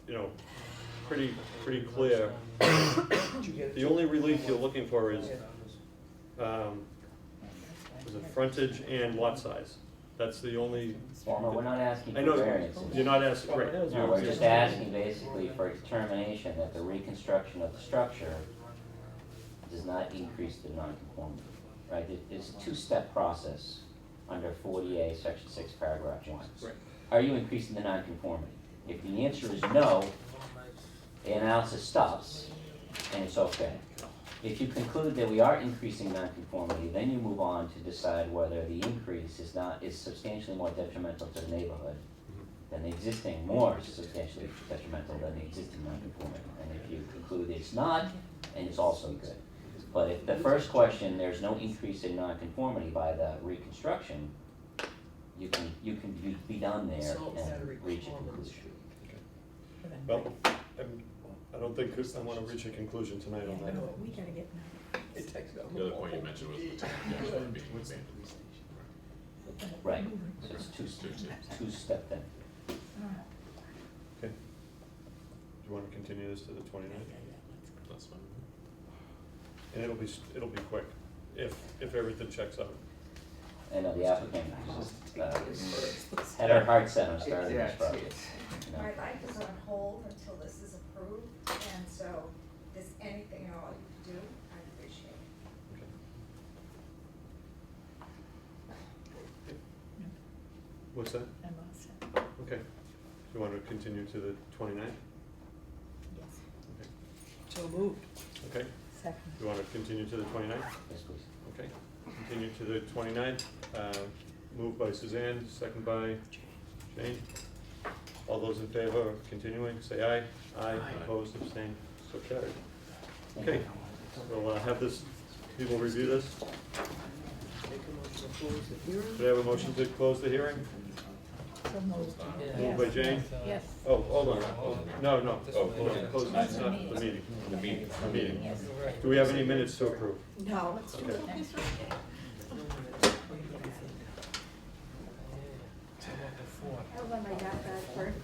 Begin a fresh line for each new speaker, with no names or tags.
pretty, pretty clear. The only relief you're looking for is, um, was it frontage and lot size? That's the only,
Well, no, we're not asking
I
for
know,
variances.
you're not asking, right.
No,
you're-
we're
you're-
just asking basically for a determination that the reconstruction of the structure does not increase the nonconformity, right? It- It's a two-step process under forty A, section six, paragraph one.
Right.
Are you increasing the nonconformity? If the answer is no, the analysis stops and it's okay. If you conclude that we are increasing nonconformity, then you move on to decide whether the increase is not, is substantially more detrimental to the neighborhood than the existing, more substantially detrimental than the existing nonconformity. And if you conclude it's not, and it's also good. But if the first question, there's no increase in nonconformity by the reconstruction, you can, you can be- be done there and reach a conclusion.
Well, I'm, I don't think I wanna reach a conclusion tonight on that.
Oh, We gotta get.
The other point you mentioned was the technical being abandoned.
Right, so it's two, two-step then.
Okay. Do you wanna continue this to the twenty-ninth?
That's fine.
And it'll be, s- it'll be quick, if, if everything checks out.
I know the applicant uh, had her heart set on starting this project. you know.
My life is on hold until this is approved, and so if there's anything at all you can do, I appreciate it.
Okay. What's that?
I'm all set.
Okay. Do you wanna continue to the twenty-ninth?
Yes.
Okay.
So moved.
Okay,
Second.
do you wanna continue to the twenty-ninth?
Yes, please.
Okay, continue to the twenty-ninth, uh, moved by Suzanne, second by Jane. All those in favor of continuing, say aye. Aye, opposed, abstained, so carried. Okay, we'll uh, have this, people review this.
Make a motion to close the hearing.
Should I have a motion to close the hearing?
So moved.
Moved by Jane?
Yes.
Oh, hold on, oh, no, no, oh, hold on, close, it's not the meeting,
The meeting.
the meeting. Do we have any minutes to approve?
No.
Okay.
Oh, my God, that